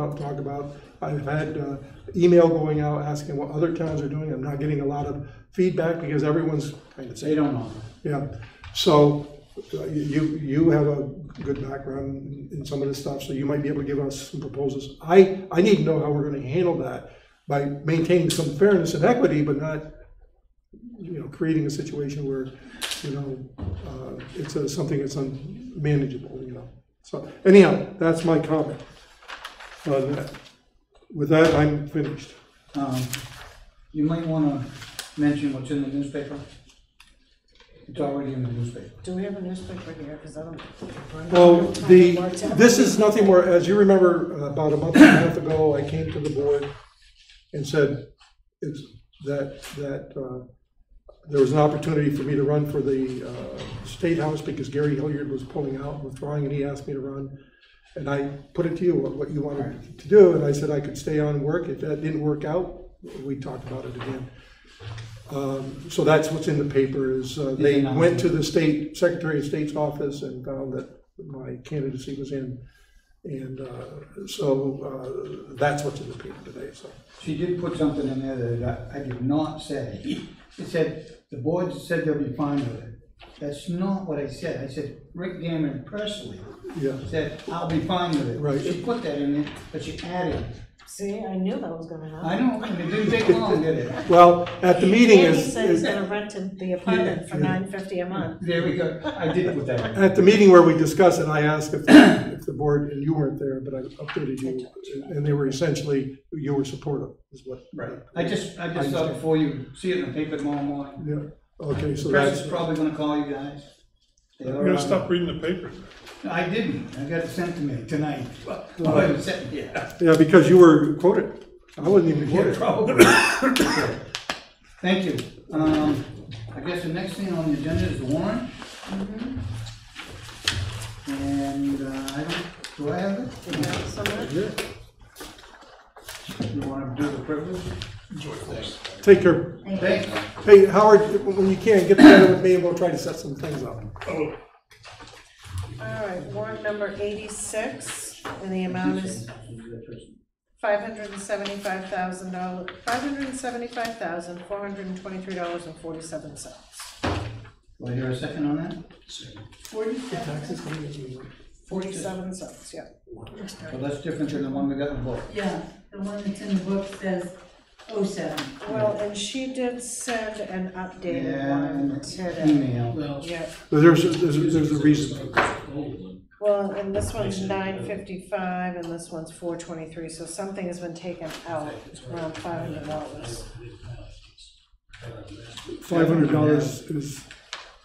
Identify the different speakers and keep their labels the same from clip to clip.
Speaker 1: Bob talked about. I've had uh, email going out asking what other towns are doing. I'm not getting a lot of feedback because everyone's kind of
Speaker 2: They
Speaker 1: saying,
Speaker 2: don't know.
Speaker 1: yeah. So uh, you, you have a good background in some of this stuff, so you might be able to give us some proposals. I, I need to know how we're gonna handle that by maintaining some fairness and equity, but not, you know, creating a situation where, you know, uh, it's uh, something that's unmanageable, you know. So anyhow, that's my comment on that. With that, I'm finished.
Speaker 2: Um, You might wanna mention what's in the newspaper. It's already in the newspaper.
Speaker 3: Do we have a newspaper here? Because I don't.
Speaker 1: Well, the, this is nothing more, as you remember, uh, about a month and a half ago, I came to the board and said, it's, that, that, uh, there was an opportunity for me to run for the, uh, State House because Gary Hilliard was pulling out, withdrawing, and he asked me to run. And I put it to you, what, what you wanted to do, and I said I could stay on and work. If that didn't work out, we talked about it again. Um, So that's what's in the paper, is uh, they went to the state, Secretary of State's office and found that my candidacy was in. And uh, so uh, that's what's in the paper today, so.
Speaker 2: She did put something in there that I, I did not say. It said, the board said they'll be fine with it. That's not what I said. I said, Rick Gammon Presley
Speaker 1: Yeah,
Speaker 2: said, I'll be fine with it.
Speaker 1: Right.
Speaker 2: She put that in there, but she added,
Speaker 3: See, I knew that was gonna
Speaker 2: I
Speaker 3: happen.
Speaker 2: don't, and it didn't take long, did it?
Speaker 1: well, at the meeting
Speaker 3: And he
Speaker 1: is,
Speaker 3: said he's
Speaker 1: is-
Speaker 3: gonna rent him the apartment for
Speaker 1: Yeah.
Speaker 3: nine fifty a month.
Speaker 2: There we go. I did put that in.
Speaker 1: at the meeting where we discussed it, I asked if, if the board, and you weren't there, but I updated you. And they were essentially, you were supportive, is what.
Speaker 2: Right. I just, I just thought before you see it in the paper tomorrow morning,
Speaker 1: Yeah, okay, so
Speaker 2: press
Speaker 1: that's,
Speaker 2: is probably gonna call you guys. They
Speaker 4: I'm
Speaker 2: are
Speaker 4: gonna
Speaker 2: on-
Speaker 4: stop reading the papers.
Speaker 2: I didn't, I got it sent to me tonight. Well, I was sitting here.
Speaker 1: yeah, because you were quoted. I wasn't even
Speaker 2: Yeah,
Speaker 1: quoted.
Speaker 2: probably. Thank you. Um, I guess the next thing on the agenda is Warren. And, uh, I don't, do I have it?
Speaker 3: You know, so much.
Speaker 1: Yeah.
Speaker 2: You wanna do the privilege?
Speaker 1: Take care.
Speaker 2: Thank,
Speaker 1: Hey, Howard, when you can, get together with me and we'll try to set some things up.
Speaker 3: All right, warrant number eighty-six, and the amount is five hundred and seventy-five thousand dollars, five hundred and seventy-five thousand, four hundred and twenty-three dollars and forty-seven cents.
Speaker 2: do I hear a second on that?
Speaker 3: Forty-seven? Forty-seven cents, yeah.
Speaker 2: So that's different than the one we got in the book.
Speaker 5: Yeah, the one that's in the book says oh seven.
Speaker 3: Well, and she did send an updated
Speaker 2: Yeah,
Speaker 3: one
Speaker 1: Mm.
Speaker 3: today.
Speaker 2: email.
Speaker 6: Well,
Speaker 3: Yeah,
Speaker 1: But There's, there's, there's a reason. for it.
Speaker 6: Old one.
Speaker 3: well, and this one's nine fifty-five and this one's four twenty-three, so something has been taken out, around five hundred dollars.
Speaker 1: Five hundred dollars is,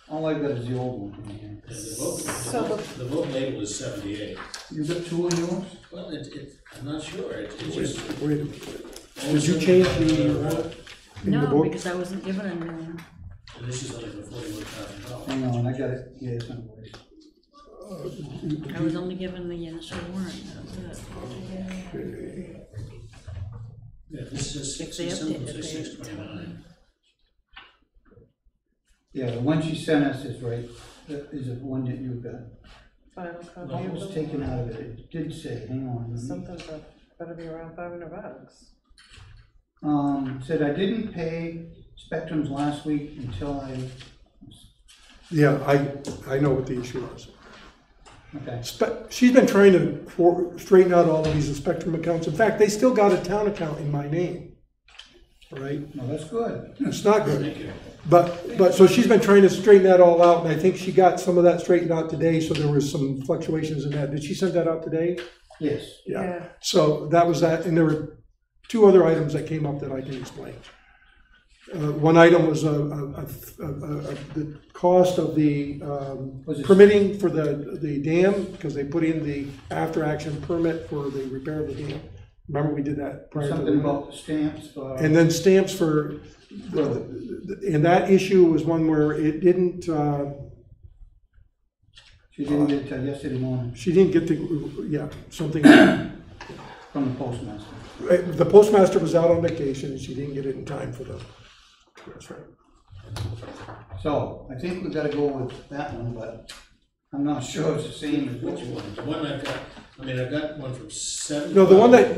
Speaker 2: All I got is the old one. in here.
Speaker 6: And the vote, the
Speaker 3: So
Speaker 6: vote, the vote label is seventy-eight.
Speaker 2: You got two of yours?
Speaker 6: Well, it, it, I'm not sure, it, it
Speaker 1: wait,
Speaker 6: just.
Speaker 1: wait a minute. Did you change the, uh, in the
Speaker 7: No,
Speaker 1: book?
Speaker 7: because I wasn't given a new one.
Speaker 6: And this is under the forty-one thousand dollars.
Speaker 2: Hang on, I got it, yeah, it's on the way.
Speaker 7: I was only given the initial warrant, that's it.
Speaker 6: Yeah, this is six,
Speaker 7: If they
Speaker 6: something,
Speaker 7: updated,
Speaker 6: six
Speaker 7: they-
Speaker 6: twenty-nine.
Speaker 2: Yeah, the one she sent us is right, That is the one that you got.
Speaker 3: Final copy
Speaker 2: It
Speaker 3: of
Speaker 2: was
Speaker 3: the-
Speaker 2: taken out of it, it did say, hang on. let me-
Speaker 3: Something's gotta be around five hundred bucks.
Speaker 2: Um, said I didn't pay Spectrum's last week until I,
Speaker 1: Yeah, I, I know what the issue is.
Speaker 2: okay,
Speaker 1: Spe- She's been trying to for- straighten out all of these Spectrum accounts. In fact, they still got a town account in my name, All right.
Speaker 2: no, that's good.
Speaker 1: It's not good.
Speaker 6: Thank you.
Speaker 1: But, but, so she's been trying to straighten that all out, and I think she got some of that straightened out today, so there was some fluctuations in that. Did she send that out today?
Speaker 2: Yes,
Speaker 3: Yeah.
Speaker 1: So that was that, and there were two other items that came up that I can explain. Uh, one item was, uh, uh, uh, uh, uh, the cost of the, um,
Speaker 2: Was it-
Speaker 1: permitting for the, the dam, because they put in the after-action permit for the repair of the dam. Remember, we did that prior to the.
Speaker 2: something
Speaker 1: winter?
Speaker 2: about stamps or.
Speaker 1: And then stamps for, and that issue was one where it didn't, uh,
Speaker 2: She didn't get it till yesterday morning
Speaker 1: she didn't get the, yeah, something, uh,
Speaker 2: from the postmaster.
Speaker 1: the postmaster was out on vacation, and she didn't get it in time for the, that's right.
Speaker 2: So I think we gotta go with that one, but I'm not sure it's the same as what
Speaker 6: Which
Speaker 2: you want.
Speaker 6: one? The one I've got, I mean, I've got one from seven.
Speaker 1: No, the one that,